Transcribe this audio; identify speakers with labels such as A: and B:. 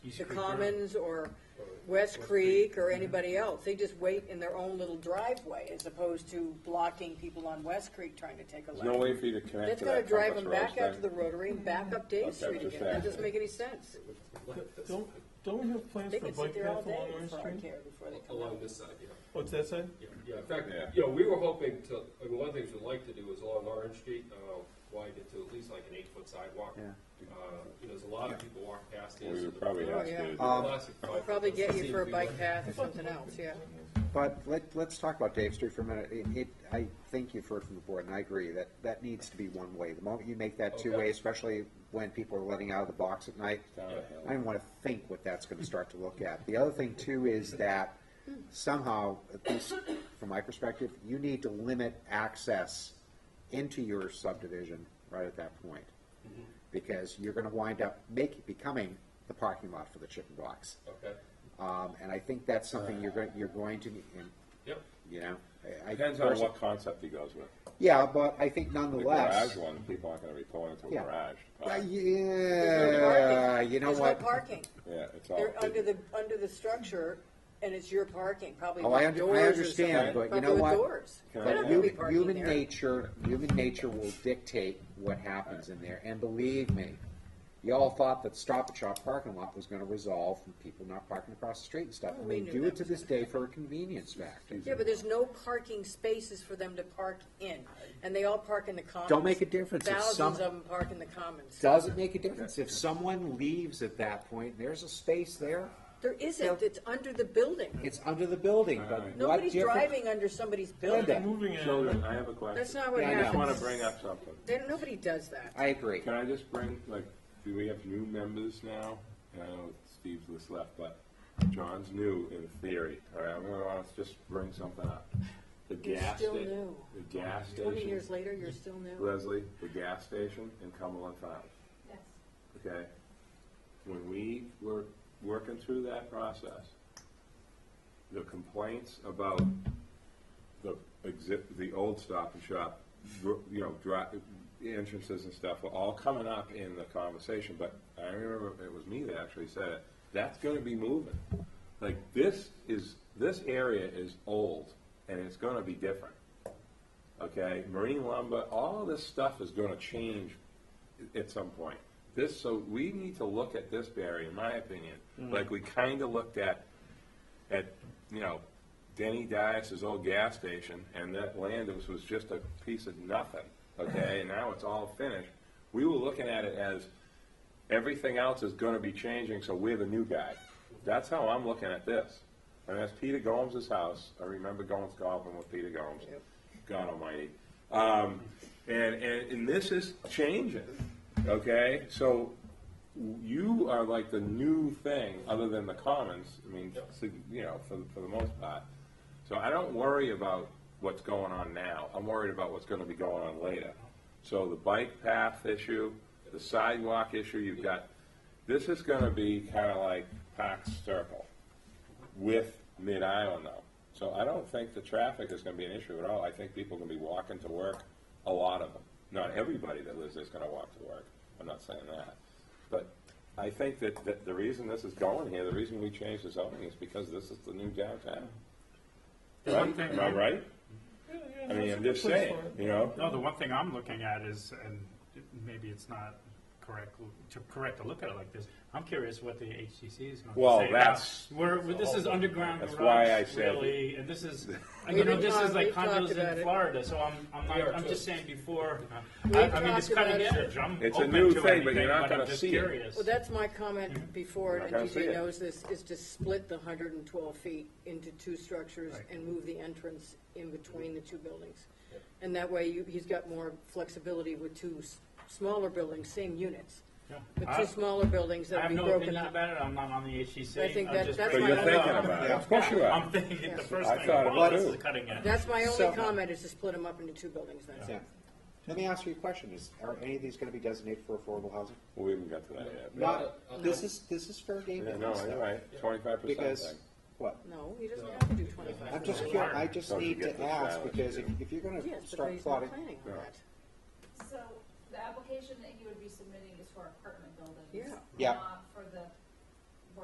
A: East
B: the
A: Creek River.
B: Commons or West Creek or anybody else. They just wait in their own little driveway as opposed to blocking people on West Creek trying to take a
C: There's no
B: left.
C: way for you to connect
B: That's
C: to
B: gonna
C: that
B: drive
C: Compass
B: them
C: Rose
B: back out to the
C: thing.
B: rotary and back up Dave
C: Okay,
B: Street
C: just
B: again. That
C: asking.
B: doesn't make any sense.
D: Don't, don't we have plans
B: They
D: for
B: can sit
D: bike
B: there all
D: path
B: day
D: along Orange
B: for our
D: Street?
B: care before they come
A: Along
B: out.
A: this side, yeah.
D: What's that say?
A: Yeah, yeah, in fact,
C: Yeah.
A: you know, we were hoping to, I mean, one of the things we'd like to do is along Orange Street, uh, widen it to at least like an eight-foot sidewalk.
E: Yeah.
A: Uh, you know, there's a lot of people walk past this.
C: We would probably
B: Oh,
C: ask you
B: yeah.
C: to do
E: Um,
A: Classic bike.
B: They'll Probably get you
A: See
B: for a
A: if we
B: bike
A: want-
B: path or something else, yeah.
E: But let, let's talk about Dave Street for a minute. It, it, I think you've heard from the board, and I agree, that, that needs to be one-way. The moment you make that two-way,
A: Okay.
E: especially when people are letting out of the box at night,
C: Down the hill.
E: I don't want to think what that's going to start to look at. The other thing too is that somehow, at least from my perspective, you need to limit access into your subdivision right at that point. Because you're going to wind up making, becoming the parking lot for the chicken box.
A: Okay,
E: Um, and I think that's something you're going, you're going to, be- and,
A: yep.
E: you know, I- I.
C: Depends on what concept he goes with.
E: Yeah, but I think
C: The
E: nonetheless.
C: garage one, people aren't gonna be pulling into a
E: Yeah.
C: garage. to
E: Uh,
C: park.
B: There's no
E: Yeah,
B: parking.
E: Uh, you know
B: There's no
E: what?
B: parking.
C: Yeah, it's all.
B: They're under the, under the structure, and it's your parking, probably
E: Oh, I
B: with
E: under- I
B: doors or
E: understand,
B: something.
E: but you
B: Probably
E: know
B: with
E: what?
B: doors.
C: Can I
B: They're
C: add-
B: not gonna be
E: Human,
B: parking
E: human
B: there.
E: nature, human nature will dictate what happens in there, and believe me, y'all thought that Stop and Shop parking lot was gonna resolve from people not parking across the street and stuff,
B: Oh,
E: and
B: we
E: they
B: knew
E: do
B: that
E: it to
B: was
E: this day for a convenience factor.
B: Yeah, but there's no parking spaces for them to park in, and they all park in the commons.
E: Don't make a difference if some-
B: Thousands of them park in the commons.
E: Doesn't make a difference, if someone leaves at that point, there's a space there,
B: There isn't, it's under the building.
E: it's under the building, but what
B: Nobody's
E: difference-
B: driving under somebody's
E: Linda.
B: building.
D: Moving it,
C: Children, I have a question.
B: That's not what
E: Yeah, I know.
C: I just wanna
B: happens.
C: bring up something.
B: There, nobody does that.
E: I agree.
C: Can I just bring, like, do we have new members now? And I know Steve's just left, but John's new in theory. All right, I'm gonna wanna just bring something up. The
B: You're
C: gas
B: still
C: sta-
B: new.
C: The gas
B: Twenty years
C: station,
B: later, you're still new.
C: Leslie, the gas station in Cumberland Farms. okay? When we were working through that process, the complaints about the exi- the old Stop and Shop, dr- you know, dri- entrances and stuff were all coming up in the conversation, but I remember it was me that actually said it, that's gonna be moving. Like, this is, this area is old, and it's gonna be different okay? Marine lumber, all this stuff is gonna change at some point. This, so we need to look at this, Barry, in my opinion, like we kinda looked at, at, you know, Denny Dias's old gas station, and that land was, was just a piece of nothing, okay? And now it's all finished. We were looking at it as, everything else is gonna be changing, so we're the new guy. That's how I'm looking at this. And that's Peter Gomes' house. I remember going golfing with Peter Gomes. God almighty. Um, and, and, and this is changing, okay? So you are like the new thing, other than the commons, I mean, sig- you know, for, the- for the most part. So I don't worry about what's going on now. I'm worried about what's gonna be going on later. So the bike path issue, the sidewalk issue, you've got, this is gonna be kinda like Parks Circle with Mid Island though. So I don't think the traffic is gonna be an issue at all. I think people are gonna be walking to work, a lot of them. Not everybody that lives there is gonna walk to work. I'm not saying that. But I think that, that the reason this is going here, the reason we changed the zoning is because this is the new downtown.
F: The one
C: Right?
F: thing-
C: Am I right? I mean, I'm just saying, you know?
F: No, the one thing I'm looking at is, and maybe it's not correct, to correct to look at it like this, I'm curious what the HTC is going to say.
C: Well,
F: now.
C: that's-
F: We're, we're- this is underground
C: That's why I
F: garage,
C: said-
F: really, and this is, and
B: We've
F: you know, this
B: talked-
F: is like
B: we've talked
F: condos
B: about it.
F: in Florida, so I'm, I'm
A: We are
F: not, I'm
A: too.
F: just saying before,
B: We've
F: I, I mean, it's
B: talked
F: cutting
B: about it.
F: edge, I'm
C: It's a
F: open
C: new
F: to
C: thing, but you're
F: anything,
C: not
F: but
C: gonna
F: I'm just
C: see it.
F: curious.
B: Well, that's my comment before,
C: I
B: and
C: gotta see
B: DJ
C: it.
B: knows this, is to split the hundred and twelve feet into two structures and move the entrance in between the two buildings. And that way, you, he's got more flexibility with two s- smaller buildings, same units,
F: Yeah.
B: but
F: I-
B: two smaller buildings
F: I
B: that'll
F: have
B: be
F: no
B: broken
F: opinion
B: up.
F: about it, I'm not on the HTC.
B: I think
F: I'm
B: that-
F: just
B: that's
C: But
F: bringing
C: you're
B: my-
F: it up.
C: thinking about it. Of course you
F: I'm
C: are.
F: thinking, the first
C: I
F: thing,
C: thought it
F: wow,
C: was
F: this is
C: too.
F: cutting edge.
B: That's my
E: So-
B: only comment, is to split them up into two buildings, that's it.
E: Let me ask you a question, is, are any of these gonna be designated for affordable housing?
C: We haven't got to that yet.
E: Not, this is, this is fair game.
C: Yeah,
E: to
C: no,
E: us, though,
C: you're right, twenty-five percent
E: Because,
C: thing.
E: what,
B: No, he doesn't have to do twenty-five.
E: I'm just curious, I just
C: Don't
E: need
C: forget
E: to
C: the
E: ask,
C: challenge,
E: because if,
C: yeah.
E: if you're gonna
B: Yes, but
E: start
B: he's not
E: plotting,
B: planning on
C: Yeah.
B: that.
G: So the application that you would be submitting is for apartment buildings?
B: Yeah.
E: Yeah.
G: Not for the